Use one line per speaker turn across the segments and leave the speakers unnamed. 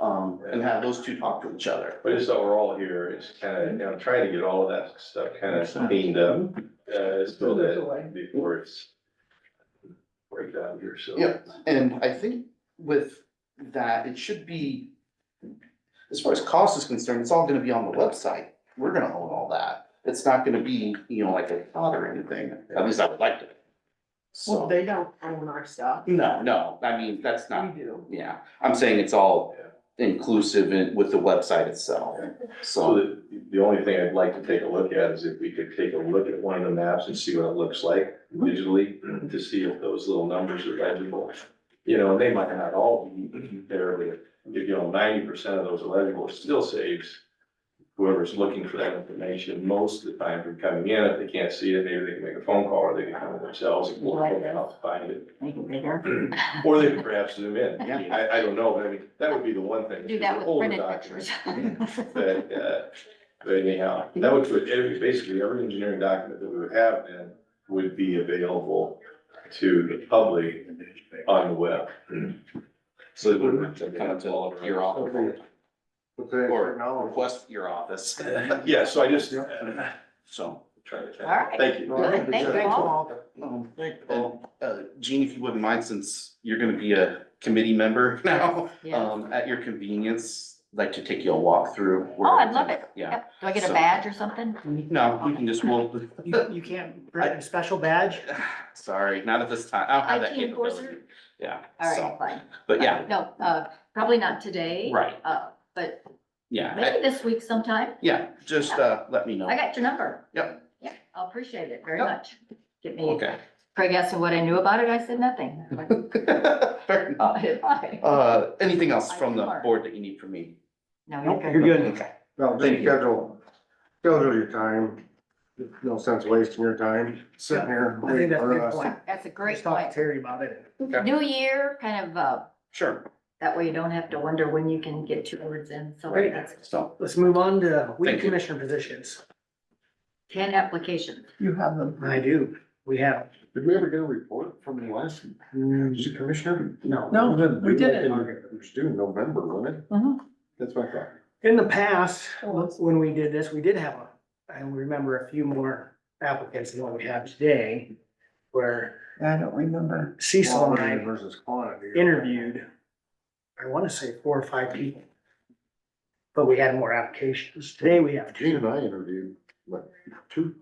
um, and have those two talk to each other.
But just overall here, it's kind of, you know, trying to get all of that stuff kind of cleaned up, uh, so that before it's break down here, so.
Yeah. And I think with that, it should be, as far as cost is concerned, it's all gonna be on the website. We're gonna own all that. It's not gonna be, you know, like a thought or anything, at least I would like to.
Well,
So,
they don't own our stuff.
no, no, I mean, that's
We
not,
do.
yeah, I'm saying it's all inclusive in, with the website itself,
So
so.
the, the only thing I'd like to take a look at is if we could take a look at one of the maps and see what it looks like visually, to see if those little numbers are legible. You know, they might not all be there, but if, you know, ninety percent of those are legible, it still saves whoever's looking for that information most of the time from coming in. If they can't see it, maybe they can make a phone call or they can come themselves and we'll help them out to find it.
Make it bigger.
Or they could perhaps zoom in.
Yeah.
I, I don't know, but I mean, that would be the one thing.
Do that with
Older
printed
documents.
pictures.
But, uh, but anyhow, that would, put every, basically every engineering document that we would have then would be available to the public on the web.
So it would have to come to your office or
Technology.
request your office,
Yeah, so I just.
Yeah.
so.
Trying to.
All right.
Thank you.
Good, thank you all.
um,
Thank you,
And,
Paul.
uh, Gene, if you wouldn't mind, since you're gonna be a committee member now,
Yeah.
um, at your convenience, like to take you a walk through.
Oh, I'd love it.
Yeah,
Yep. Do I get
So-
a badge or something?
no, we can just, well,
You, you can't bring a special badge?
sorry, not at this time, I don't have uh, that
IT enforcer?
capability. Yeah,
All right,
so,
fine.
but yeah,
No, uh, probably not today.
right,
Uh, but
yeah, I-
maybe this week sometime.
yeah, just, uh, let me know.
I got your number.
Yep.
Yeah, I appreciate it very
Yep.
much. Get me,
Okay.
Craig asked me what I knew about it. I said nothing.
Fair enough.
Bye.
Uh, anything else
I
from the
are.
board that you need from me?
No,
Nope,
you're
you're
good.
good.
Okay,
No,
Thank
just
you.
schedule, schedule your time. No sense wasting your time sitting here
I think
waiting
that's a
for
good
us.
point.
That's a
Just
great
talk to
point.
Terry about it.
Terry.
New year, kind of, uh,
sure,
that way you don't have to wonder when you can get two words in. So
Great.
that's
so,
Let's move on to weed
Thank you.
commissioner positions.
ten applications.
You have them.
I do. We have.
Did we ever get a report from the last, was it commissioner? No.
Mm. No, we didn't. Mm-hmm.
It was due November, wasn't it?
Mhm.
That's my thought.
In the past, when we did this, we did have a, I remember a few more applicants than what we have today. Where
I don't remember.
Cecil and I
Versus quantity.
interviewed, I want to say four or five people. But we had more applications. Today we have two.
Gene and I interviewed, what, two?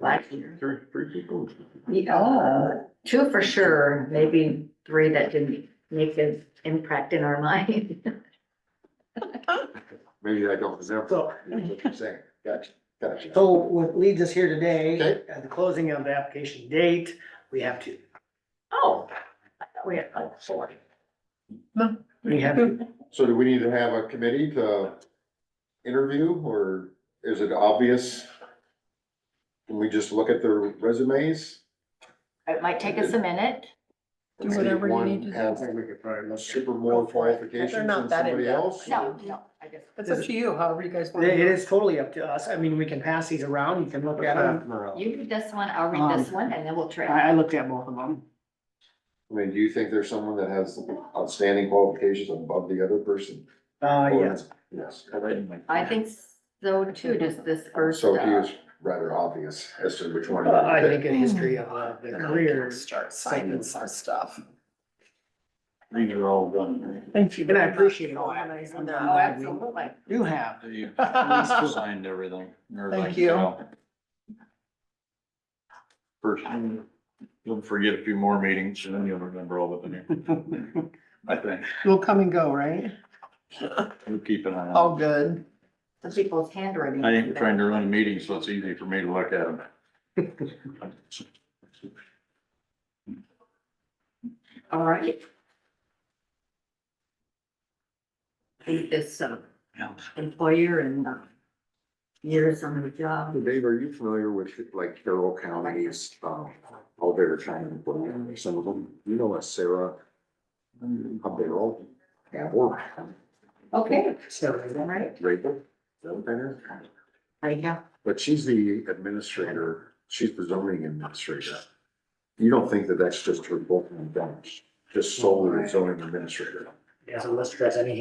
Last year.
Three, three people.
Yeah, two for sure, maybe three that didn't make an impact in our mind.
Maybe I don't remember
So,
what you're saying. Gotcha, gotcha.
so what leads us here today,
Okay.
at the closing of the application date, we have two.
Oh, I thought we had like four.
We have
So do we need to have a committee to interview, or is it obvious? Can we just look at their resumes?
It might take us a minute.
Do whatever you need to do.
I think we could probably look super more qualifications
They're
than
not that
somebody
in-depth.
else.
No, no, I guess.
It's up to you, however you guys want. to
It
do
is totally up to us. I mean, we can pass these around. You can look at them.
You read this one, I'll read this
Um,
one, and then we'll trade.
I, I looked at both of them.
I mean, do you think there's someone that has outstanding qualifications above the other person?
Uh,
Or-
yes.
Yes,
I think so too, just this first.
so he
uh,
was rather obvious as to which one. he would
Uh, I
pick.
think a history of uh, the
Then we can
careers.
Start signing some stuff.
these are all done.
Thank you.
And I
very much
appreciate
for
all that.
organizing
Oh,
that.
absolutely.
You have.
You
Thank
signed everything. or
Thank
like,
you.
know, First, you'll forget a few more meetings and then you'll remember all of it. I think,
We'll come and go, right?
we'll keep an
Oh.
eye on
All
it.
good.
The people's handwriting.
I ain't trying to run a meeting, so it's easy for me to look at them.
All right. Read This uh, employer and uh, years on the job.
Dave, are you familiar with like Carroll County's, um, all their China, some of them, you know, a Sarah, a Beryl, or
Okay, all
So,
right,
Rachel? is that what that is?
there you go.
But she's the administrator, she's the zoning administrator. You don't think that that's just her book and bench, just solely zoning administrator?
yeah, so let's address any